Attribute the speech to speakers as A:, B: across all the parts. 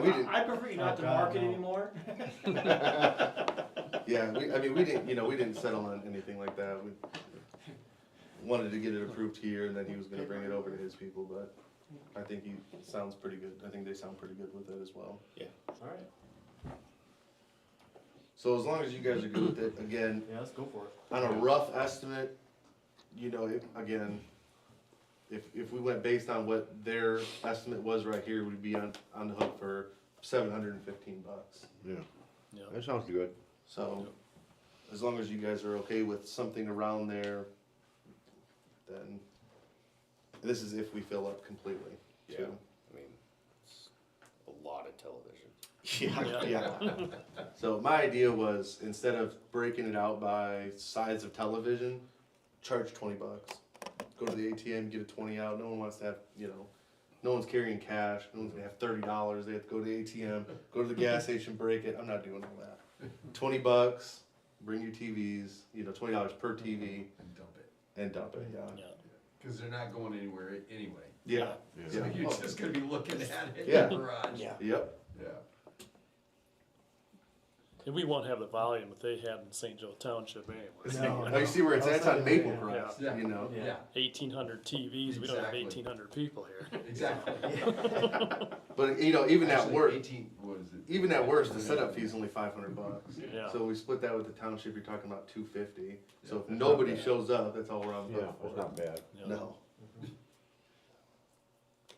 A: we didn't.
B: I prefer you not to
C: Oh, God,
B: market
C: no.
B: anymore.
A: Yeah, we, I mean, we didn't, you know, we didn't settle on anything like that, we wanted to get it approved here, and then he was gonna bring it over to his people, but I think he sounds pretty good, I think they sound pretty good with it as well.
C: Alright,
A: So as long as you guys are good with it, again,
C: yeah, let's go for it.
A: on a rough estimate, you know, if, again, if, if we went based on what their estimate was right here, we'd be on, on the hook for seven hundred and fifteen bucks.
D: Yeah,
E: Yeah.
D: that sounds good.
A: So, as long as you guys are okay with something around there, then this is if we fill up completely.
E: Yeah.
A: too.
E: I mean, it's a lot of television.
A: Yeah, yeah. So my idea was instead of breaking it out by size of television, charge twenty bucks. Go to the ATM, get a twenty out. No one wants to have, you know, no one's carrying cash. No one's gonna have thirty dollars. They have to go to the ATM, go to the gas station, break it. I'm not doing all that. Twenty bucks. Bring your TVs. You know, twenty dollars per TV
F: and dump it,
A: and dump it. Yeah.
F: cause they're not going anywhere a- anyway.
A: Yeah.
F: So
A: Yeah.
F: you're just gonna be looking at it
A: Yeah.
F: in the garage.
E: Yeah.
A: Yep.
F: Yeah.
G: And we won't have the volume that they had in St. Joe Township anyway.
C: No,
A: Now you see where it's at. It's on
C: Outside,
A: Maple
C: yeah.
A: Crest.
F: Yeah.
A: You know.
F: Yeah,
G: Eighteen hundred TVs, we don't have
F: Exactly.
G: eighteen hundred people here.
F: exactly.
A: But you know, even at
F: Actually,
A: work,
F: Eighteen, what is it?
A: even at worst, the setup fee is only five hundred bucks.
G: Yeah.
A: So we split that with the township, you're talking about two fifty. So if nobody shows up, that's all we're on the
D: Yeah,
A: hook
D: that's
A: for.
D: not bad.
G: Yeah.
A: No.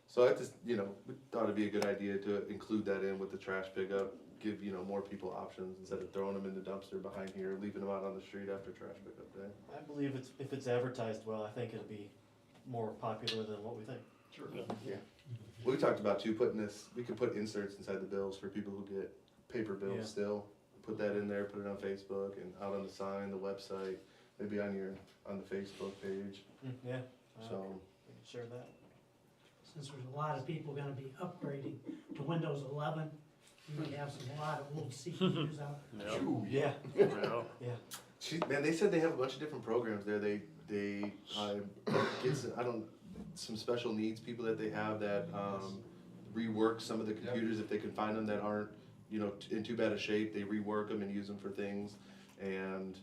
A: So I just, you know, we thought it'd be a good idea to include that in with the trash pickup, give, you know, more people options instead of throwing them in the dumpster behind here, leaving them out on the street after trash pickup day.
C: I believe it's, if it's advertised well, I think it'll be more popular than what we think.
F: Sure.
A: We talked about too, putting this, we could put inserts inside the bills for people who get paper
C: Yeah.
A: bills still. Put that in there, put it on Facebook and out on the sign, the website, maybe on your, on the Facebook page,
C: Mm, Yeah. uh,
A: so.
C: We can share that.
H: since there's a lot of people gonna be upgrading to Windows eleven, you may have some, a lot of old CPUs out there.
G: Yeah,
F: Phew,
C: Yeah,
G: yeah.
C: yeah.
A: She, man, they said they have a bunch of different programs there. They they uh, get some, I don't some special needs people that they have that um, rework some of the computers if they can find them that aren't you know t- in too bad a shape. They rework them and use them for things, and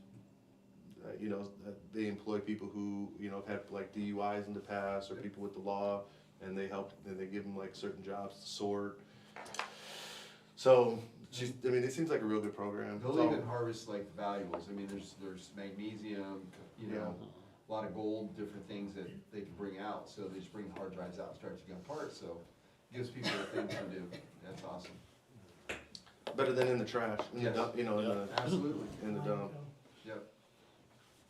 A: uh, you know uh, they employ people who you know have had like DUIs in the past or people with the law, and they help and they give them like certain jobs to sort. So she's, I mean, it seems like a real good program. It's
F: They'll
A: all-
F: even harvest like the valuables, I mean, there's, there's magnesium, you know, a lot of gold, different things that they can bring out, so they just bring the hard drives out and start to get parts, so. Gives people a thing to do, that's awesome,
A: Better than in the trash, in the
F: Yes.
A: dump, you know, in the,
F: absolutely,
A: in the dump.
F: yep,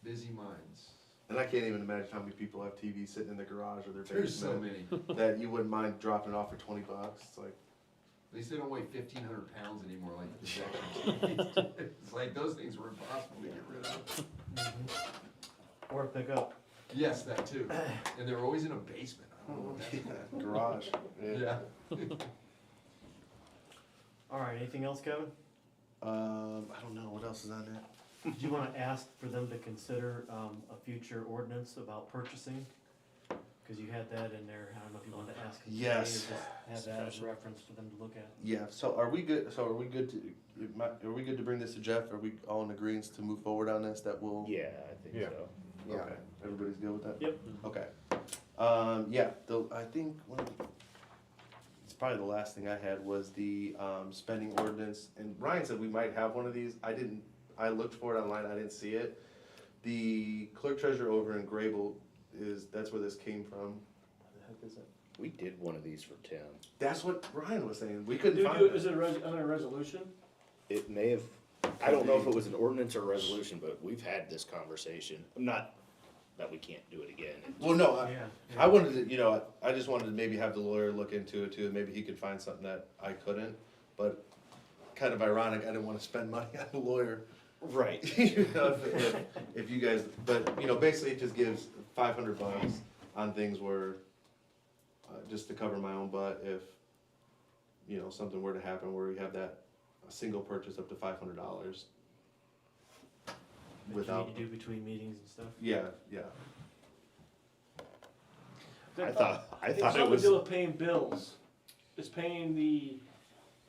F: busy minds,
A: And I can't even imagine how many people have TVs sitting in their garage or their
F: there's so
A: basement
F: many,
A: that you wouldn't mind dropping off for twenty bucks. It's like,
F: at least they don't weigh fifteen hundred pounds anymore like the projection TVs. It's like, those things were impossible to get rid of.
C: Mm-hmm. Or pick up.
F: Yes, that too, and they're always in a basement, I don't know what that's about.
A: garage.
F: Yeah.
C: All right, anything else, Kevin?
A: Um, I don't know what else is on that.
C: Do you wanna ask for them to consider, um, a future ordinance about purchasing? Cause you had that in there, I don't know if you wanted to ask. them today or
A: Yes.
C: just Have that as reference for them to look at.
A: Yeah. So are we good? So are we good to? am I- Are we good to bring this to Jeff? Are we all in agreement to move forward on this? That will.
E: Yeah, I think
D: Yeah.
E: so.
A: Yeah. Everybody's good with that?
C: Yep.
A: Okay. Um, yeah, the, I think one of the, it's probably the last thing I had was the, um, spending ordinance, and Ryan said we might have one of these, I didn't, I looked for it online, I didn't see it. The clerk treasurer over in Grable is, that's where this came from.
E: We did one of these for ten.
A: That's what Ryan was saying, we
B: Do,
A: couldn't find
B: do, is
A: it.
B: it a res, under a resolution?
E: It may have, I don't know if it was an ordinance or a resolution, but we've had this conversation. I'm not, that we can't do it again.
A: Well, no, I,
C: Yeah.
A: I wanted to, you know, I just wanted to maybe have the lawyer look into it too, and maybe he could find something that I couldn't, but kind of ironic, I didn't wanna spend money on a lawyer
E: Right.
A: you know, if, if, if you guys, but you know, basically it just gives five hundred bucks on things where, uh, just to cover my own butt if, you know, something were to happen where we have that a single purchase up to five hundred dollars.
C: That you
A: Without-
C: need to do between meetings and stuff.
A: Yeah, yeah.
E: I thought, I
B: It's
E: thought it
B: something to
E: was,
B: do with paying bills. It's paying the